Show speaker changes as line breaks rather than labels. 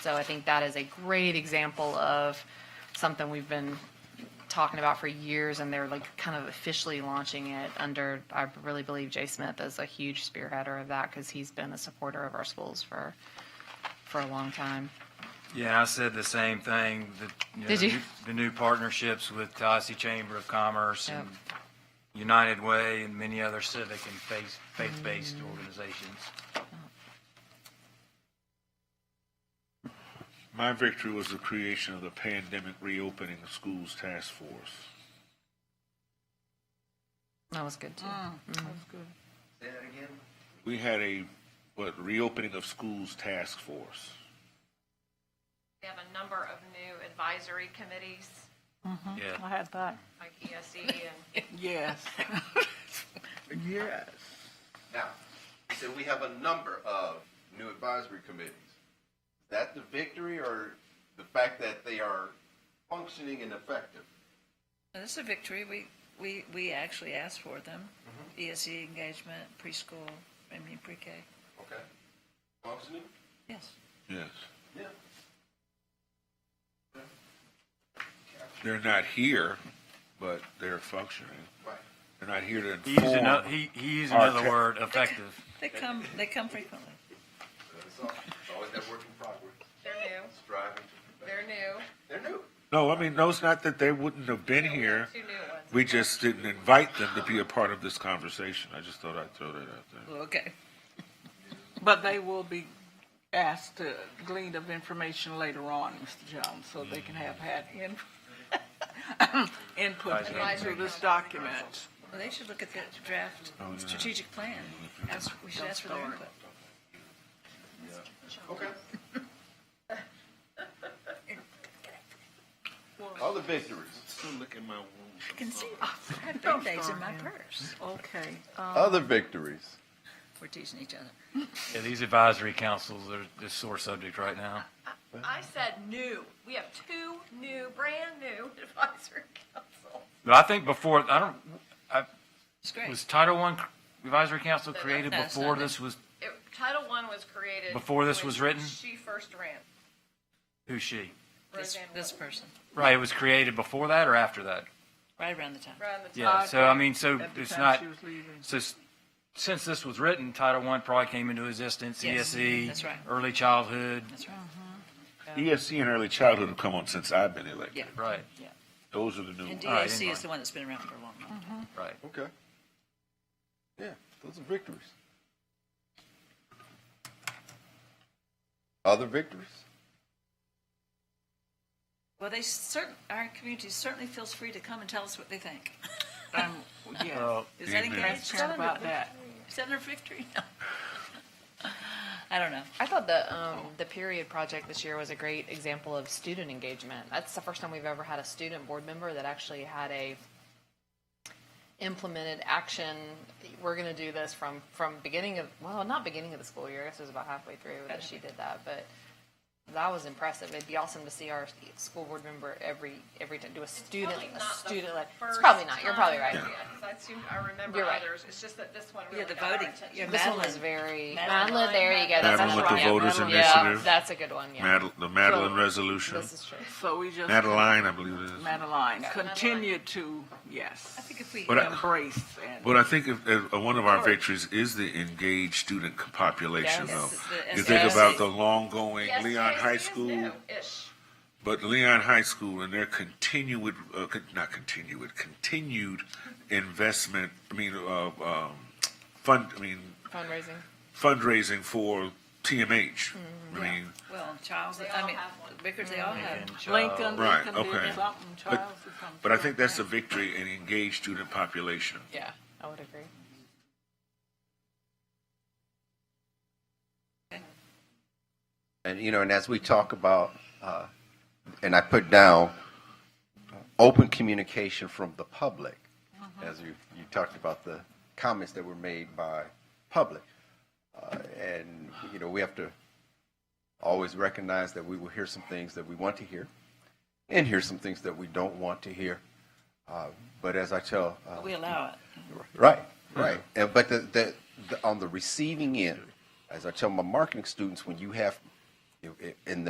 So I think that is a great example of something we've been talking about for years, and they're like kind of officially launching it under, I really believe Jay Smith is a huge spearheader of that, because he's been a supporter of our schools for, for a long time.
Yeah, I said the same thing. The, you know,
Did
the
you?
new- The new partnerships with Tallahassee Chamber of Commerce
Yep.
and
Oh.
United Way and many other civic and faith- faith-based
Mm.
organizations.
My victory was the creation of the Pandemic Reopening of Schools Task Force.
That was good, too.
Mm.
We had a, what, reopening of schools task force.
We have a number of new advisory committees,
Yeah,
I had that.
like ESE and
Yes. Yes.
Now, you said we have a number of new advisory committees. Is that the victory or the fact that they are functioning and effective?
This is a victory. We, we, we actually asked for them.
Mm-hmm.
ESE engagement, preschool, I mean pre-K.
Okay. Functioning?
Yes.
Yes.
Yeah.
They're not here, but they're functioning.
Right.
They're not here to
he used ano-
inform.
he, he used
Our
another
ca-
word, effective.
They come, they come frequently.
That's all. It's always that work in progress,
they're new,
striving to,
they're new.
they're new.
No, I mean, no, it's not that they wouldn't have been here.
Two new ones.
We just didn't invite them to be a part of this conversation. I just thought I'd throw that out there.
Okay.
But they will be asked to glean of information later on, Mr. Jones, so they can have had in- input into this document.
Well, they should look at the draft strategic plan. Ask, we should ask for their input.
Okay. Other victories.
I can see, oh, I have band-aids in my purse.
Okay,
Other victories.
We're teasing each other.
Yeah, these advisory councils are the sore subject right now.
I said new, we have two new, brand new advisory councils.
But I think before, I don't, I,
It's great.
was Title One advisory council created
No, it's
before
not.
this was,
It- Title I was created.
Before this
when
was written?
She first ran.
who's she?
This,
Roseanne
this
Wood
person,
Right, it was created before that or after that?
right around the time.
Ran the
Yeah,
top.
so I mean, so
at the
it's
time
not,
she was leaving.
So, s- since this was written, Title I probably came into existence,
Yes,
ESE.
that's right.
Early childhood,
That's right.
ESC E and early childhood have come on since I've been elected.
Yeah.
right,
Those are the new
And
ones.
All right,
DAC
anyway.
is the one that's been around for a long time.
right.
Okay. Yeah, those are victories. Other victories?
Well, they certain, our community certainly feels free to come and tell us what they think. Um,
I'm, yes,
Uh,
Is that
Amen.
engaged? Is that
transparent about
under-
that.
is that under victory? No. I don't know.
I thought the um, the period project this year was a great example of student engagement. That's the first time we've ever had a student board member that actually had a implemented action. We're going to do this from from beginning of well, not beginning of the school year. I guess it was about halfway through that she did that, but that was impressive. It'd be awesome to see our school board member every every time do a student
Probably
a
not the
student like it's
first
probably not. You're probably right.
time. Yeah, 'cause I assumed, I remember
You're right.
others, it's just that this one
Yeah,
really
the
got our
voting.
attention.
Yeah,
This one was
Madeline.
very
Madeline.
Madeline. There you go. That's
Madeline
another
with the
one. Yeah,
Voters
Madeline.
Initiative.
Yeah, that's a good one. Yeah.
Madel- The Madeline
So-
Resolution.
This is true.
So we just.
Madeline, I believe it is.
Madeline, continue to, yes,
I think if we, um,
But I-
embrace and.
But I think if, if uh, one of our victories is the engaged student c- population,
Yes.
though.
Yes, the
You think
SJC.
about the long-going
Yes,
Leon
yes,
High
yes,
School,
no, Ish.
but Leon High School and their continued, uh, con- not continued, continued investment, I mean, uh, um, fund, I mean,
Fundraising.
fundraising for TMH. I mean,
well, Charles,
They
I
all
mean,
have one.
Vickers, they all have.
And, uh,
Lincoln,
Right,
Lincoln
Mm-hmm. okay.
did something, Charles
but,
did something.
but I think that's a victory in engaged student population.
Yeah, I would agree.
And, you know, and as we talk about, uh, and I put down uh, open communication from the public, as you, you talked about the comments that were made by public. Uh, and, you know, we have to always recognize that we will hear some things that we want to hear and hear some things that we don't want to hear. Uh, but as I tell, uh,
We allow it.
Right, right. And, but the, the, the, on the receiving end, as I tell my marketing students, when you have, in the